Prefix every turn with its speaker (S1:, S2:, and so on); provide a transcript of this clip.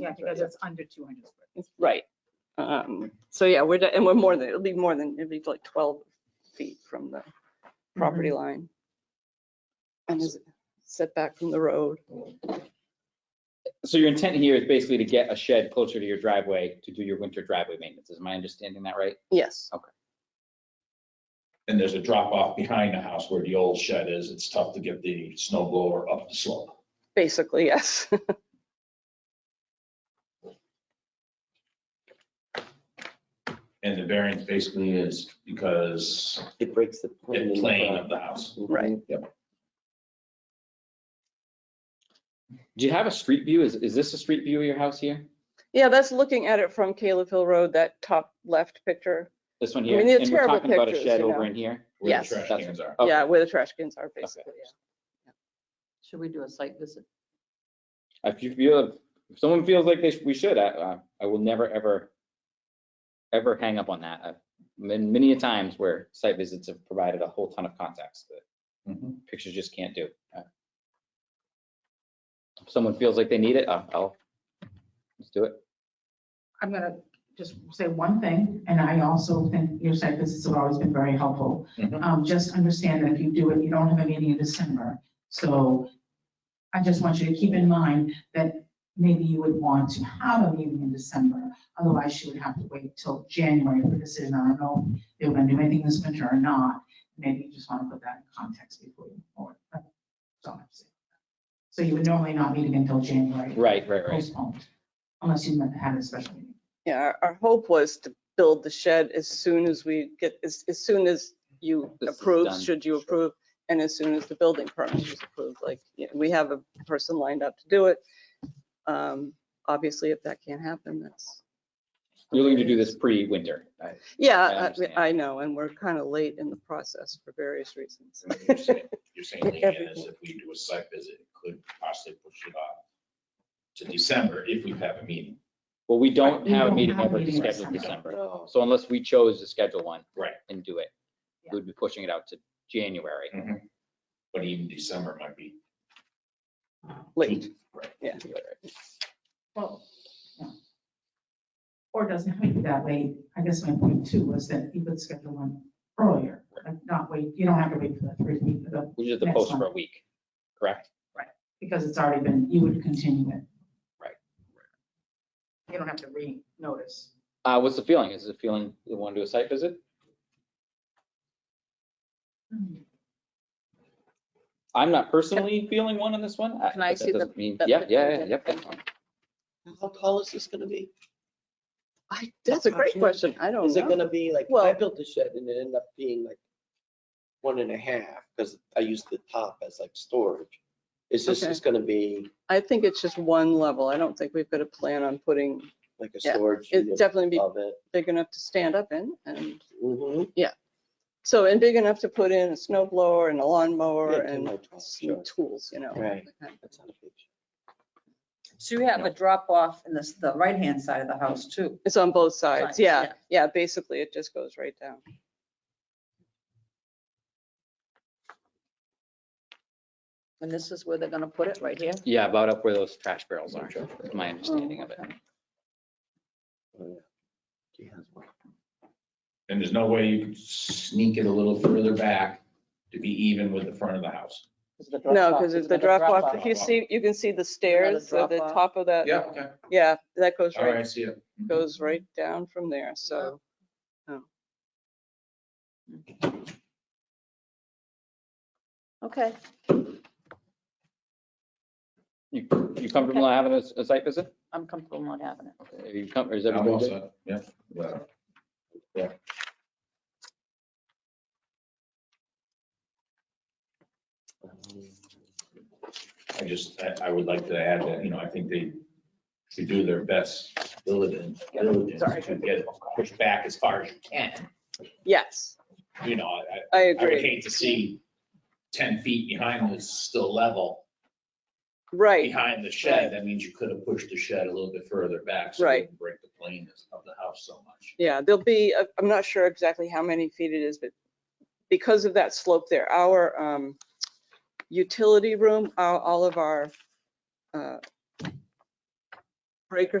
S1: Yeah, because it's under two hundred square.
S2: It's- Right. Um, so yeah, we're, de- and we're more than, it'll be more than, it'll be like twelve feet from the property line. And is setback from the road.
S3: So your intent here is basically to get a shed closer to your driveway to do your winter driveway maintenance. Is my understanding that right?
S2: Yes.
S4: And there's a drop off behind the house where the old shed is. It's tough to get the snow blower up the slope.
S2: Basically, yes.
S4: And the variance basically is because
S5: It breaks the plane.
S4: the plane of the house.
S2: Right.
S3: Do you have a street view? Is, is this a street view of your house here?
S2: Yeah, that's looking at it from Caleb Hill Road, that top left picture.
S3: This one
S2: I
S3: here?
S2: mean, they're
S3: And we're
S2: terrible
S3: talking about a
S2: pictures,
S3: shed
S2: you
S3: over
S2: know.
S3: in here?
S4: where the
S2: Yes.
S4: Trash
S3: That's-
S4: cans are.
S3: Okay.
S2: Yeah, where the trash cans are basically.
S1: Should we do a site visit?
S3: If you feel, if someone feels like they, sh- we should, I, I- I will never, ever, ever hang up on that. I've been many a times where site visits have provided a whole ton of context that
S4: Mhm.
S3: pictures just can't do. Uh, If someone feels like they need it, I'll- I'll, let's do it.
S1: I'm gonna just say one thing, and I also think your site visits have always been very helpful.
S4: Mhm.
S1: Um, just understand that if you do it, you don't have a meeting in December, so I just want you to keep in mind that maybe you would want to have a meeting in December, otherwise you would have to wait till January for a decision. I don't know if they're gonna do anything this winter or not. Maybe you just wanna put that in context before you move forward. That's all I'm saying. So you would normally not meet again until January.
S3: Right, right, right.
S1: Postponed, unless you meant to have a special meeting.
S2: Yeah, our- our hope was to build the shed as soon as we get, as, as soon as you
S3: This is
S2: approve,
S3: done.
S2: should you approve, and as soon as the building permit is approved, like, yeah, we have a person lined up to do it. Um, Obviously, if that can't happen, that's,
S3: You're looking to do this pre-winter. I- I
S2: yeah,
S3: understand.
S2: I- I know, and we're kind of late in the process for various reasons.
S4: You're saying- you're saying Leanne is
S2: Everything.
S4: if we do a site visit, it could possibly push it off to December if we have a meeting.
S3: Well, we don't
S1: We
S3: have a
S1: don't
S3: meeting
S1: have a
S3: ever
S1: meeting in
S3: scheduled
S1: December.
S3: December. So unless we chose to schedule one.
S4: Right.
S3: And do it,
S1: Yeah.
S3: we'd be pushing it out to January.
S4: But even December might be.
S2: Late,
S4: Right.
S2: yeah.
S1: Well, yeah. Or it doesn't have to be that way. I guess my point too was that you could schedule one earlier, like not wait, you don't have to wait for the three week, but-
S3: We just have to
S1: Next
S3: post for
S1: one.
S3: a week, correct?
S1: because it's already been, you would continue it.
S3: Right.
S1: You don't have to re-notice.
S3: Uh, what's the feeling? Is the feeling you want to do a site visit?
S1: Mm-hmm.
S3: I'm not personally feeling one on this one.
S6: Can I
S3: but that
S6: see the-
S3: doesn't mean-
S6: that
S3: Yeah, yeah,
S6: picture
S3: yeah,
S6: again?
S3: yep, that's fine.
S5: How tall is this gonna be?
S2: I, that's a great question, I don't
S5: Is it
S2: know.
S5: gonna be like, I
S2: Well-
S5: built the shed and it ended up being like one and a half, because I used the top as like storage. Is this
S2: Okay.
S5: just gonna be
S2: I think it's just one level, I don't think we've got a plan on putting,
S5: like a
S2: Yeah,
S5: storage
S2: it'd
S5: unit
S2: definitely be Mm-hmm.
S5: of it?
S2: big enough to stand up in, and
S5: Mhm.
S2: So, and big enough to put in a snow blower and a lawnmower
S5: Yeah, 10 by
S2: and
S5: 12,
S2: some
S5: sure.
S2: tools, you know.
S5: Right.
S2: that kind of-
S5: That's not a big shed.
S6: So you have a drop off in this, the right-hand side of the house too.
S2: It's on both sides,
S6: Sides,
S2: yeah,
S6: yeah.
S2: yeah, basically it just goes right down.
S6: And this is where they're gonna put it, right here?
S3: Yeah, about up where those trash barrels are, is my understanding of it.
S5: Oh, yeah. She has one.
S4: And there's no way you could sneak it a little further back to be even with the front of the house.
S2: No, because it's the drop off, if you
S4: drop-off.
S2: see, you can see the stairs, so the
S6: drop-off.
S2: top of that,
S4: Yeah, okay.
S2: yeah, that goes
S4: All right, I
S2: right,
S4: see it.
S2: goes right down from there,
S6: Mm-hmm.
S2: so. oh.
S6: Okay.
S3: You, you comfortable having a, a site visit?
S6: I'm comfortable not having it.
S3: Are you com- is
S4: I'm all
S3: everybody good?
S4: set. Yeah. Yeah. I just, I, I would like to add that, you know, I think they should do their best diligence, diligence to get pushed back as far as you can.
S2: Yes,
S4: You know, I,
S2: I
S4: I would
S2: agree,
S4: hate to see ten feet behind is still level.
S2: right,
S4: Behind the shed, that means you could have pushed the shed a little bit further back. so it
S2: Right.
S4: didn't Break the plane of the house so much.
S2: yeah, there'll be, I- I'm not sure exactly how many feet it is, but because of that slope there, our um, utility room, our- all of our uh, breaker